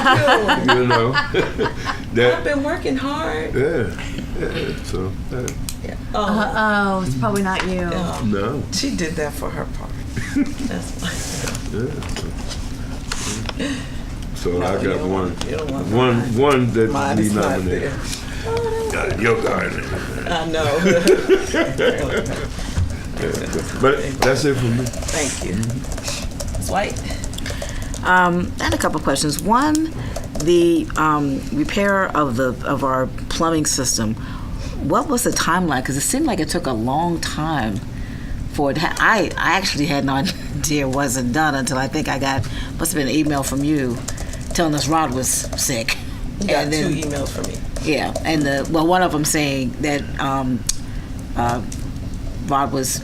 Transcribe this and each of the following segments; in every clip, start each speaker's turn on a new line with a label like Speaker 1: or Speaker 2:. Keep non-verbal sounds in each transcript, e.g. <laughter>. Speaker 1: Thank you.
Speaker 2: you know <laughs>
Speaker 3: <laughs>
Speaker 1: I've
Speaker 2: that
Speaker 1: been working hard.
Speaker 2: yeah, yeah. so uh,
Speaker 1: Oh,
Speaker 4: Uh, oh, it's probably not you.
Speaker 1: yeah.
Speaker 2: no
Speaker 1: She did that for
Speaker 2: <laughs>
Speaker 1: her part. That's why.
Speaker 2: yeah. so
Speaker 1: No,
Speaker 2: I
Speaker 1: you
Speaker 2: got
Speaker 1: don't
Speaker 2: one
Speaker 1: want- you don't want
Speaker 2: one one that
Speaker 1: Mine
Speaker 2: be
Speaker 1: is not there.
Speaker 2: nominated Uh, your garden
Speaker 1: I
Speaker 2: <laughs>
Speaker 1: know. <laughs>
Speaker 2: but that's it for me
Speaker 1: Thank you.
Speaker 2: Mm-hmm.
Speaker 1: It's white.
Speaker 3: Um, I had a couple of questions. One, the um, repair of the of our plumbing system. What was the timeline? Because it seemed like it took a long time for it. Ha- I I actually had no <laughs> idea it wasn't done until I think I got must have been an email from you telling us Rod was sick.
Speaker 1: You got
Speaker 3: And then-
Speaker 1: two emails from me.
Speaker 3: yeah, and the well, one of them saying that um, uh, Rod was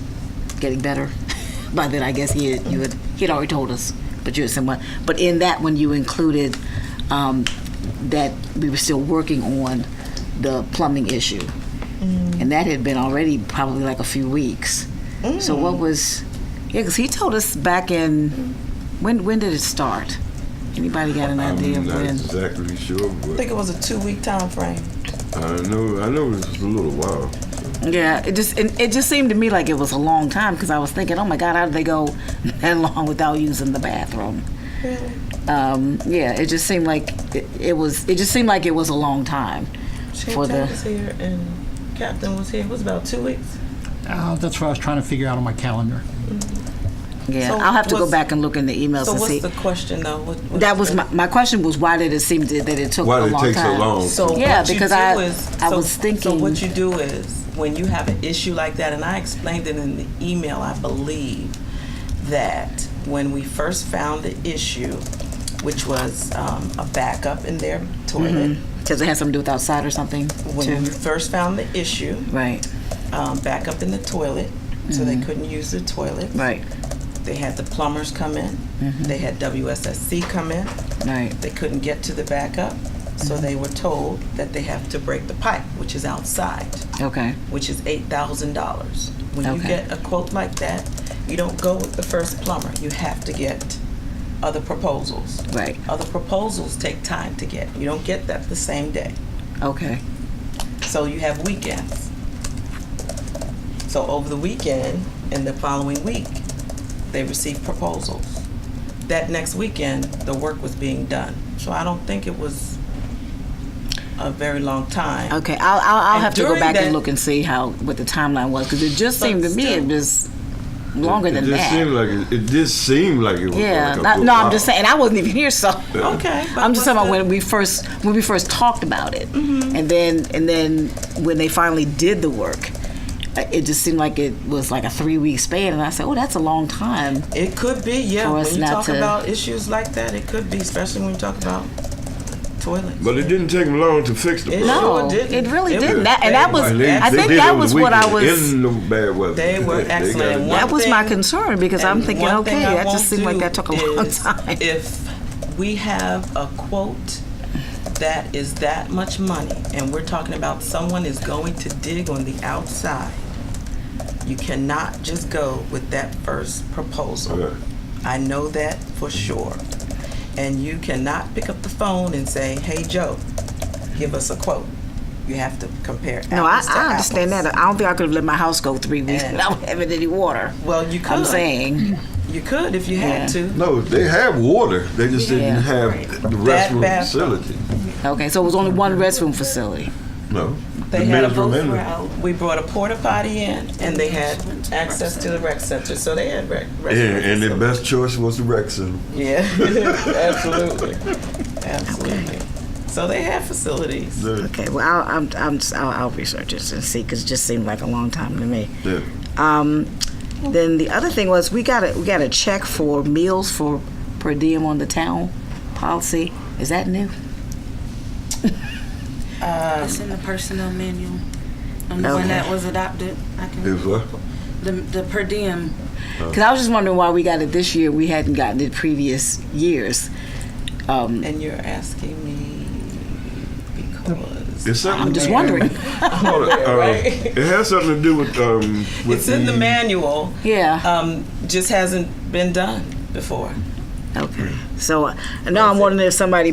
Speaker 3: getting better. <laughs> By then, I guess he had, you had he had already told us, but you had someone. But in that one, you included um, that we were still working on the plumbing issue, and that had been already probably like a few weeks. So what was? Yeah, because he told us back in when when did it start? Anybody got an idea
Speaker 2: I'm
Speaker 3: of
Speaker 2: not
Speaker 3: when?
Speaker 2: exactly sure
Speaker 1: I
Speaker 2: but
Speaker 1: think it was a two-week time frame.
Speaker 2: I know I know it's a little while
Speaker 3: Yeah, it just it, it just seemed to me like it was a long time because I was thinking, oh my God, how did they go <laughs> that long without using the bathroom?
Speaker 1: Really?
Speaker 3: Um, yeah, it just seemed like it, it was. It just seemed like it was a long time
Speaker 1: Chief
Speaker 3: for the.
Speaker 1: was here and Captain was here. It was about two weeks.
Speaker 5: Uh, that's what I was trying to figure out on my calendar.
Speaker 3: Yeah,
Speaker 1: So
Speaker 3: I'll have to go
Speaker 1: what's-
Speaker 3: back and look in the emails
Speaker 1: So
Speaker 3: and
Speaker 1: what's
Speaker 3: see.
Speaker 1: the question though? What, what
Speaker 3: that was
Speaker 1: the-
Speaker 3: my, my question was why did it seem to, that it took
Speaker 2: Why
Speaker 3: a
Speaker 2: did it
Speaker 3: long
Speaker 2: take so
Speaker 3: time?
Speaker 2: long?
Speaker 1: So
Speaker 3: Yeah,
Speaker 1: what you
Speaker 3: because
Speaker 1: do
Speaker 3: I-
Speaker 1: is,
Speaker 3: I
Speaker 1: so-
Speaker 3: was
Speaker 1: So
Speaker 3: thinking-
Speaker 1: what you do is when you have an issue like that, and I explained it in the email, I believe that when we first found the issue, which was um, a backup in their toilet,
Speaker 3: Because it had something to do with outside or something.
Speaker 1: when we
Speaker 3: Mm-hmm. too.
Speaker 1: first found the issue,
Speaker 3: Right,
Speaker 1: um, backup in the toilet, so they couldn't use the toilet.
Speaker 3: Mm-hmm. right, Mm-hmm.
Speaker 1: They had the plumbers come in. They had WSSC come in.
Speaker 3: right. Mm-hmm.
Speaker 1: They couldn't get to the backup, so they were told that they have to break the pipe, which is outside,
Speaker 3: Okay,
Speaker 1: which is eight thousand dollars. When you
Speaker 3: Okay.
Speaker 1: get a quote like that, you don't go with the first plumber. You have to get other proposals.
Speaker 3: right,
Speaker 1: Other proposals take time to get. You don't get that the same day.
Speaker 3: okay,
Speaker 1: So you have weekends. So over the weekend and the following week, they received proposals. That next weekend, the work was being done. So I don't think it was a very long time.
Speaker 3: okay. I'll I'll, I'll
Speaker 1: And
Speaker 3: have to go
Speaker 1: during
Speaker 3: back
Speaker 1: that-
Speaker 3: and look and see how what the timeline was because it just
Speaker 1: But
Speaker 3: seemed to me it
Speaker 1: still.
Speaker 3: was longer
Speaker 2: it
Speaker 3: than
Speaker 2: just
Speaker 3: that.
Speaker 2: seemed like it, it just seemed like it was
Speaker 3: Yeah,
Speaker 2: like a
Speaker 3: not-
Speaker 2: good
Speaker 3: no,
Speaker 2: while.
Speaker 3: I'm just saying I wasn't <laughs> even here, so
Speaker 1: Okay. but
Speaker 3: I'm just talking
Speaker 1: what's Mm-hmm.
Speaker 3: about when we first when we first talked about it, and then and then when they finally did the work, uh, it just seemed like it was like a three week span, and I said, oh, that's a long time.
Speaker 1: the- It could be, yeah.
Speaker 3: For
Speaker 1: When
Speaker 3: us
Speaker 1: you
Speaker 3: not
Speaker 1: talk
Speaker 3: to-
Speaker 1: about issues like that, it could be, especially when you talk about toilets.
Speaker 2: but it didn't take them long to fix the
Speaker 1: It
Speaker 2: problem.
Speaker 1: sure
Speaker 3: No,
Speaker 1: didn't.
Speaker 3: it really
Speaker 1: It
Speaker 3: didn't.
Speaker 1: was
Speaker 3: That- and that was-
Speaker 1: bad.
Speaker 2: And they-
Speaker 3: I
Speaker 2: they
Speaker 3: think
Speaker 2: did
Speaker 3: that
Speaker 2: on the
Speaker 3: was what I
Speaker 2: weekend,
Speaker 3: was-
Speaker 2: In the bad weather.
Speaker 1: They
Speaker 2: <laughs>
Speaker 1: were
Speaker 2: got it
Speaker 1: excellent.
Speaker 2: done.
Speaker 1: One
Speaker 3: that was my
Speaker 1: thing-
Speaker 3: concern because I'm
Speaker 1: And
Speaker 3: thinking,
Speaker 1: one thing
Speaker 3: okay,
Speaker 1: I
Speaker 3: that
Speaker 1: won't
Speaker 3: just seemed like
Speaker 1: do
Speaker 3: that took a long
Speaker 1: is
Speaker 3: <laughs> time.
Speaker 1: If we have a quote that is that much money, and we're talking about someone is going to dig on the outside, you cannot just go with that first proposal.
Speaker 2: Okay.
Speaker 1: I know that for sure. And you cannot pick up the phone and say, "Hey Joe, give us a quote." You have to compare.
Speaker 3: No, I,
Speaker 1: apples to
Speaker 3: I understand
Speaker 1: apples.
Speaker 3: that. I don't think I could have let my house go three weeks
Speaker 1: And-
Speaker 3: without <laughs> having any water.
Speaker 1: Well, you could.
Speaker 3: I'm saying,
Speaker 1: you could if you
Speaker 3: Yeah.
Speaker 1: had to.
Speaker 2: No, they had water. They just
Speaker 3: Yeah.
Speaker 2: didn't have the
Speaker 1: That
Speaker 2: restroom
Speaker 1: bathroom.
Speaker 2: facility.
Speaker 3: okay, so it was only one restroom facility.
Speaker 2: No.
Speaker 1: They
Speaker 2: the
Speaker 1: had a
Speaker 2: men's room
Speaker 1: boat
Speaker 2: and the-
Speaker 1: route. We brought a porta potty in, and they had access to the rec center, so they had rec. rec
Speaker 2: Yeah, and their best choice was the rec center.
Speaker 1: Yeah, <laughs> absolutely, absolutely. So they had facilities.
Speaker 2: The-
Speaker 3: Okay, well, I'll, I'm, I'm, I'll, I'll research this and see because it just seemed like a long time to me.
Speaker 2: the-
Speaker 3: Um, then the other thing was we got a we got a check for meals for per diem on the town policy. Is that new?
Speaker 6: It's in the personnel manual. And the
Speaker 3: Okay.
Speaker 6: one that was adopted, I
Speaker 2: It
Speaker 6: can,
Speaker 2: was what?
Speaker 6: the, the per diem.
Speaker 3: Because I was just wondering why we got it this year. We hadn't gotten it previous years. Um,
Speaker 1: And you're asking me because
Speaker 2: It's something.
Speaker 3: I'm just wondering.
Speaker 2: Hold on, uh,
Speaker 1: <laughs> right?
Speaker 2: It has something to do with um. With
Speaker 1: it's in the manual,
Speaker 3: Yeah.
Speaker 1: um, just hasn't been done before.
Speaker 3: Okay. So uh, now I'm wondering if somebody